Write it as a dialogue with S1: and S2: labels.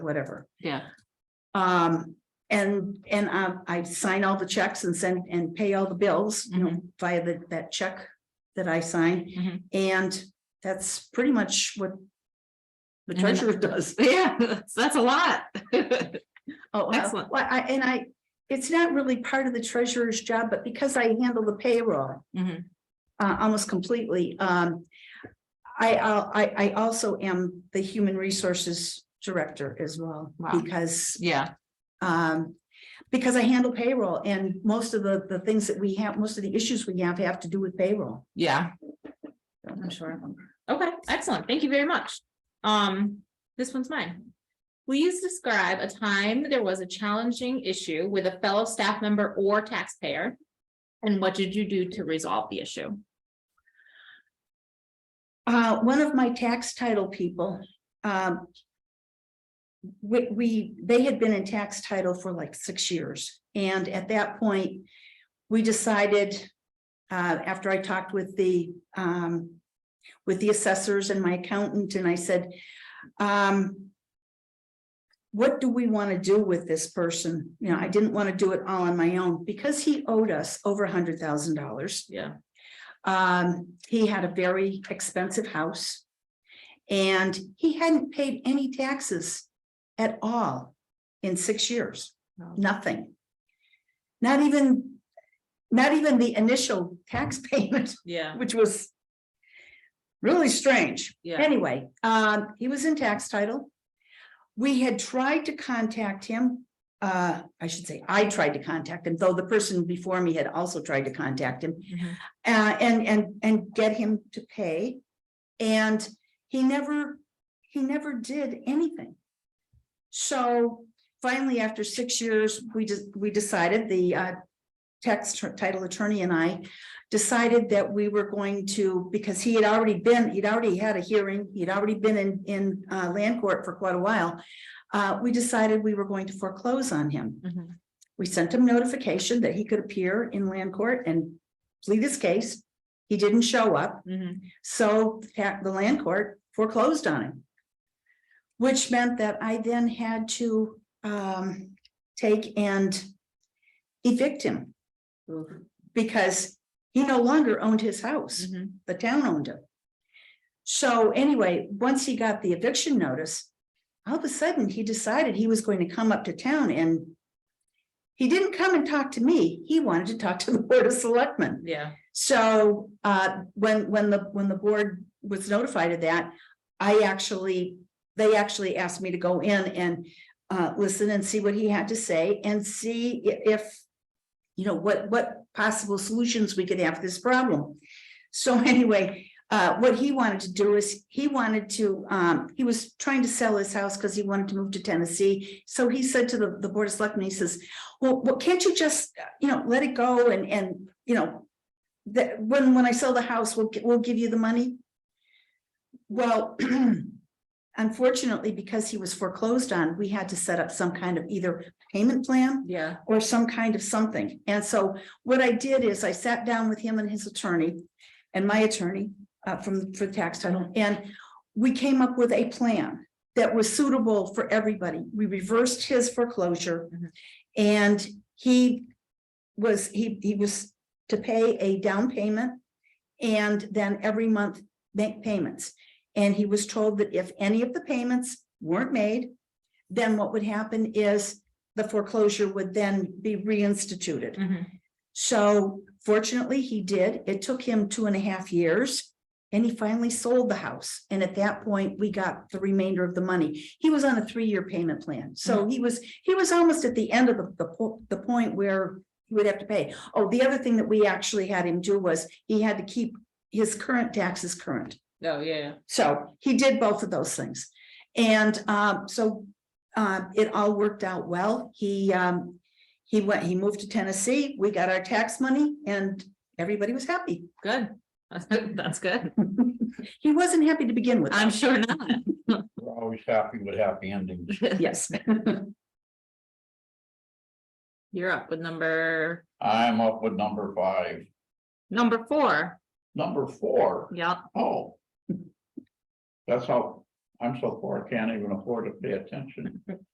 S1: whatever.
S2: Yeah,
S1: Um, and, and I, I sign all the checks and send and pay all the bills, you
S2: mm-hmm.
S1: know, via the, that check that I sign.
S2: Mhm.
S1: And that's pretty much what the
S2: And then-
S1: treasurer does.
S2: yeah, that's- that's a lot.
S1: Oh, well,
S2: Excellent.
S1: well, I, and I, it's not really part of the treasurer's job, but because I handle the payroll
S2: Mhm.
S1: uh, almost completely, um, I, I'll- I, I also am the human resources director as well,
S2: Wow.
S1: because
S2: Yeah,
S1: Um, because I handle payroll and most of the, the things that we have, most of the issues we have have to do with payroll.
S2: yeah. I'm sure. Okay, excellent. Thank you very much. Um, this one's mine. Please describe a time there was a challenging issue with a fellow staff member or taxpayer. And what did you do to resolve the issue?
S1: Uh, one of my tax title people, um. We, we, they had been in tax title for like six years, and at that point, we decided. Uh, after I talked with the, um, with the assessors and my accountant, and I said, um. What do we want to do with this person? You know, I didn't want to do it all on my own, because he owed us over a hundred thousand dollars.
S2: Yeah.
S1: Um, he had a very expensive house. And he hadn't paid any taxes at all in six years,
S2: Wow.
S1: nothing. Not even, not even the initial tax payment,
S2: Yeah,
S1: which was really strange.
S2: yeah.
S1: Anyway, um, he was in tax title. We had tried to contact him. Uh, I should say, I tried to contact him, though the person before me had also tried to contact him uh, and, and, and get him to pay. And he never, he never did anything. So finally, after six years, we just, we decided, the, uh, tax tr- title attorney and I decided that we were going to, because he had already been, he'd already had a hearing, he'd already been in, in, uh, land court for quite a while. Uh, we decided we were going to foreclose on him.
S2: Mhm.
S1: We sent him notification that he could appear in land court and plead his case. He didn't show up,
S2: Mhm.
S1: so the ta- the land court foreclosed on him. Which meant that I then had to um take and evict him
S2: Mhm.
S1: because he no longer owned his house.
S2: Mhm.
S1: The town owned it. So anyway, once he got the eviction notice, all of a sudden he decided he was going to come up to town and he didn't come and talk to me. He wanted to talk to the Board of Selectmen.
S2: Yeah,
S1: So uh, when, when the, when the board was notified of that, I actually, they actually asked me to go in and uh, listen and see what he had to say and see i- if, you know, what, what possible solutions we could have to this problem. So anyway, uh, what he wanted to do is, he wanted to, um, he was trying to sell his house because he wanted to move to Tennessee. So he said to the, the Board of Selectmen, he says, well, well, can't you just, uh, you know, let it go and, and, you know, that, when, when I sell the house, we'll, gi- we'll give you the money? Well, unfortunately, because he was foreclosed on, we had to set up some kind of either payment plan
S2: yeah.
S1: or some kind of something. And so what I did is I sat down with him and his attorney and my attorney uh, from, for the tax title, and we came up with a plan that was suitable for everybody. We reversed his foreclosure
S2: Mhm.
S1: and he was, he, he was to pay a down payment and then every month make payments. And he was told that if any of the payments weren't made, then what would happen is the foreclosure would then be reinstituted.
S2: Mhm.
S1: So fortunately, he did. It took him two and a half years. And he finally sold the house. And at that point, we got the remainder of the money. He was on a three-year payment plan. So he was, he was almost at the end of the, the, po- the point where he would have to pay. Oh, the other thing that we actually had him do was he had to keep his current taxes current.
S2: Oh, yeah, yeah.
S1: So he did both of those things. And um, so uh, it all worked out well. He um, he went, he moved to Tennessee. We got our tax money and everybody was happy.
S2: Good. That's good.
S1: He wasn't happy to begin with.
S2: I'm sure not.
S3: We're always happy with happy endings.
S1: Yes.
S2: You're up with number,
S3: I'm up with number five.
S2: number four.
S3: Number four.
S2: Yeah.
S3: Oh, That's how, I'm so poor, I can't even afford to pay attention.